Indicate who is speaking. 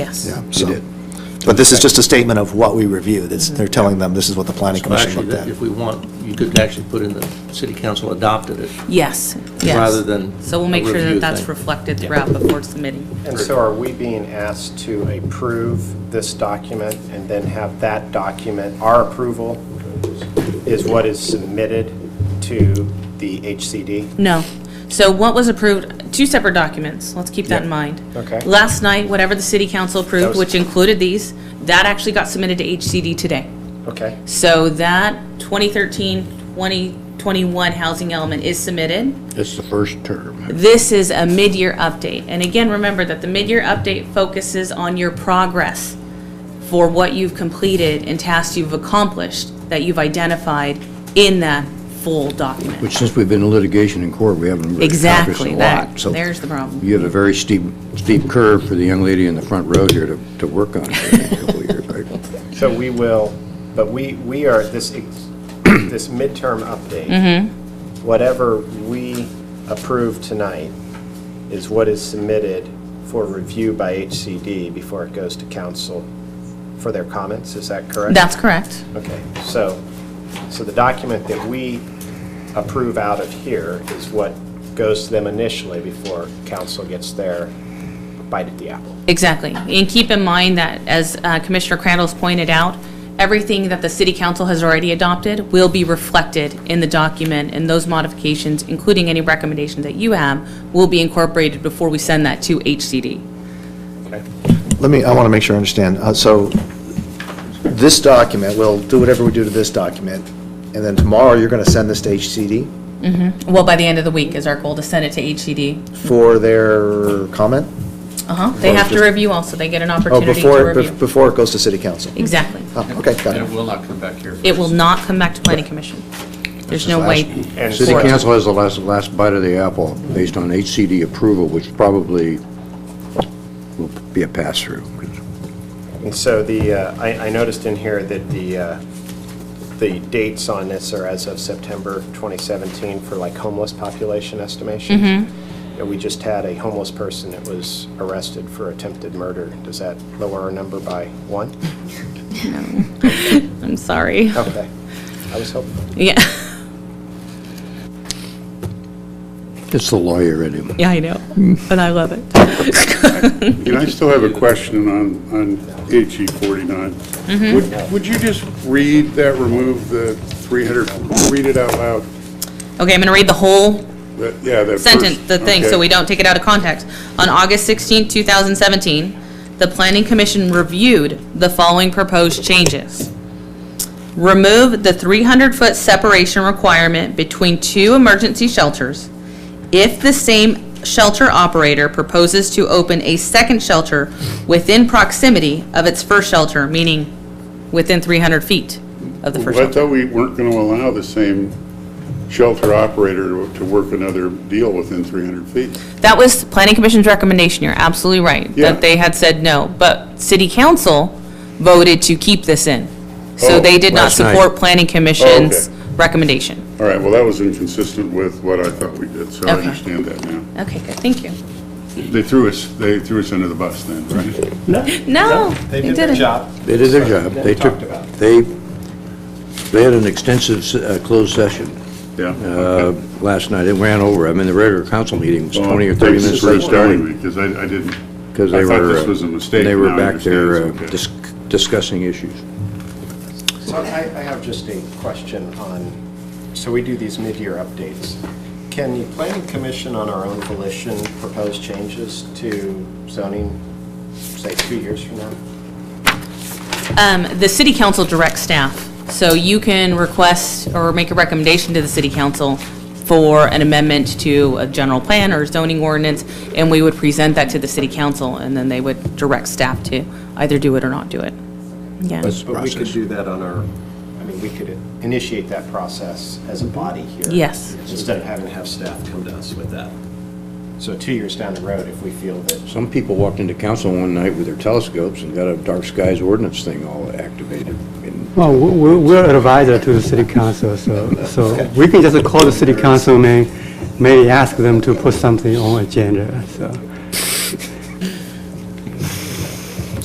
Speaker 1: Yes.
Speaker 2: Yeah,
Speaker 3: You
Speaker 2: so,
Speaker 3: did.
Speaker 2: but this is just a statement of what we reviewed. It's, they're telling them this is what the planning
Speaker 4: Well,
Speaker 2: commission
Speaker 4: Actually,
Speaker 2: looked
Speaker 4: that-
Speaker 2: at.
Speaker 4: if we want, you could actually put in the city council adopted it.
Speaker 1: Yes, yes.
Speaker 4: Rather than
Speaker 1: So we'll make
Speaker 4: a
Speaker 1: sure that
Speaker 4: review
Speaker 1: that's
Speaker 4: thing.
Speaker 1: reflected throughout before submitting.
Speaker 5: And so are we being asked to approve this document and then have that document, our approval is what is submitted to the HCD?
Speaker 1: No. So what was approved, two separate documents, let's keep that in mind.
Speaker 5: Okay.
Speaker 1: Last night, whatever the city council
Speaker 5: That
Speaker 1: approved,
Speaker 5: was-
Speaker 1: which included these, that actually got submitted to HCD today.
Speaker 5: Okay,
Speaker 1: So that 2013, 2021 housing element is submitted.
Speaker 3: It's the first term.
Speaker 1: This is a mid-year update. And again, remember that the mid-year update focuses on your progress for what you've completed and tasks you've accomplished that you've identified in that full document.
Speaker 3: Which since we've been in litigation in court, we haven't really accomplished a
Speaker 1: Exactly, that,
Speaker 3: lot. So
Speaker 1: there's the problem.
Speaker 3: You have a very steep, steep curve for the young lady in the front row here to, to work on for the next couple of years, right?
Speaker 5: so we will, but we, we are, this, ex- this midterm update, whatever we approve tonight is what is submitted for review by HCD before it goes to council for their comments, is that correct?
Speaker 1: That's correct.
Speaker 5: Okay, so, so the document that we approve out of here is what goes to them initially before council gets their bite at the apple.
Speaker 1: Exactly. And keep in mind that, as uh, Commissioner Crandall's pointed out, everything that the city council has already adopted will be reflected in the document, and those modifications, including any recommendations that you have, will be incorporated before we send that to HCD.
Speaker 5: Okay.
Speaker 2: Let me, I want to make sure I understand. Uh, So this document, we'll do whatever we do to this document, and then tomorrow you're going to send this to HCD
Speaker 1: Well, by the end of the week is our goal to send it to HCD.
Speaker 2: for their comment?
Speaker 1: Uh-huh. They have to review also. They get an
Speaker 2: Oh,
Speaker 1: opportunity to
Speaker 2: before,
Speaker 1: review.
Speaker 2: before it goes to city council?
Speaker 1: Exactly.
Speaker 2: Oh, okay, got
Speaker 6: And it
Speaker 2: it.
Speaker 6: will not come back here. for
Speaker 1: It will not come back to planning commission. There's no way.
Speaker 5: And
Speaker 3: City
Speaker 5: so-
Speaker 3: council has the last, last bite of the apple based on HCD approval, which probably will be a pass-through.
Speaker 5: And so the, uh, I I noticed in here that the, uh, the dates on this are as of September 2017 for like homeless population estimations. And we just had a homeless person that was arrested for attempted murder. Does that lower our number by one?
Speaker 1: I'm sorry.
Speaker 2: Oh.
Speaker 5: Okay, I was hoping.
Speaker 1: Yeah,
Speaker 3: It's the lawyer in him.
Speaker 1: yeah, I know.
Speaker 2: Hmm.
Speaker 1: But I love it.
Speaker 7: And I still have a question on, on HE 49.
Speaker 1: Mm-hmm.
Speaker 7: Would, would you just read that, remove the 300, read it out loud?
Speaker 1: Okay, I'm going to read the whole
Speaker 7: That- Yeah, that first.
Speaker 1: sentence, the thing, so
Speaker 7: okay.
Speaker 1: we don't take it out of context. On August 16, 2017, the Planning Commission reviewed the following proposed changes. Remove the 300-foot separation requirement between two emergency shelters if the same shelter operator proposes to open a second shelter within proximity of its first shelter, meaning within 300 feet of the first
Speaker 7: Well, I
Speaker 1: shelter.
Speaker 7: thought we weren't going to allow the same shelter operator to to work another deal within 300 feet.
Speaker 1: That was Planning Commission's recommendation, you're absolutely right,
Speaker 7: Yeah.
Speaker 1: that they had said no, but City Council voted to keep this in. So
Speaker 7: Oh,
Speaker 1: they did not
Speaker 3: last night.
Speaker 1: support Planning Commission's
Speaker 7: Oh,
Speaker 1: recommendation.
Speaker 7: All right, well, that was inconsistent with what I thought we did, so I
Speaker 1: Okay.
Speaker 7: understand that now.
Speaker 1: Okay, good, thank you.
Speaker 7: They threw us, they threw us under the bus then, right?
Speaker 1: No,
Speaker 5: They
Speaker 1: they
Speaker 5: did their
Speaker 1: Oh, didn't.
Speaker 5: job.
Speaker 3: They did their job.
Speaker 5: That
Speaker 3: They
Speaker 5: we
Speaker 3: took,
Speaker 5: talked about.
Speaker 3: they, they had an extensive s- uh, closed session
Speaker 7: Yeah.
Speaker 3: uh, last night. It ran over. I mean, the regular council meeting was 20 or 30 minutes late starting.
Speaker 7: Because I, I didn't.
Speaker 3: Because they
Speaker 7: I
Speaker 3: were.
Speaker 7: thought this
Speaker 3: uh,
Speaker 7: was a mistake.
Speaker 3: They were
Speaker 7: Now I
Speaker 3: back there uh,
Speaker 7: understand it's
Speaker 3: dis- discussing issues.
Speaker 5: So I, I have just a question on, so we do these mid-year updates. Can the planning commission on our own volition propose changes to zoning, say, two years from now?
Speaker 1: Um, the City Council directs staff, so you can request or make a recommendation to the City Council for an amendment to a general plan or zoning ordinance, and we would present that to the City Council, and then they would direct staff to either do it or not do it. Yeah.
Speaker 3: That's the
Speaker 5: But we could
Speaker 3: process.
Speaker 5: do that on our, I mean, we could initiate that process as a body here.
Speaker 1: Yes.
Speaker 5: Instead of having to have staff come to us with that. So two years down the road, if we feel that,
Speaker 3: Some people walked into council one night with their telescopes and got a dark skies ordinance thing all activated. And
Speaker 8: Well, we- we're we're an advisor to the city council, so, so we can just call the city council, may, may ask them to put something on agenda, so.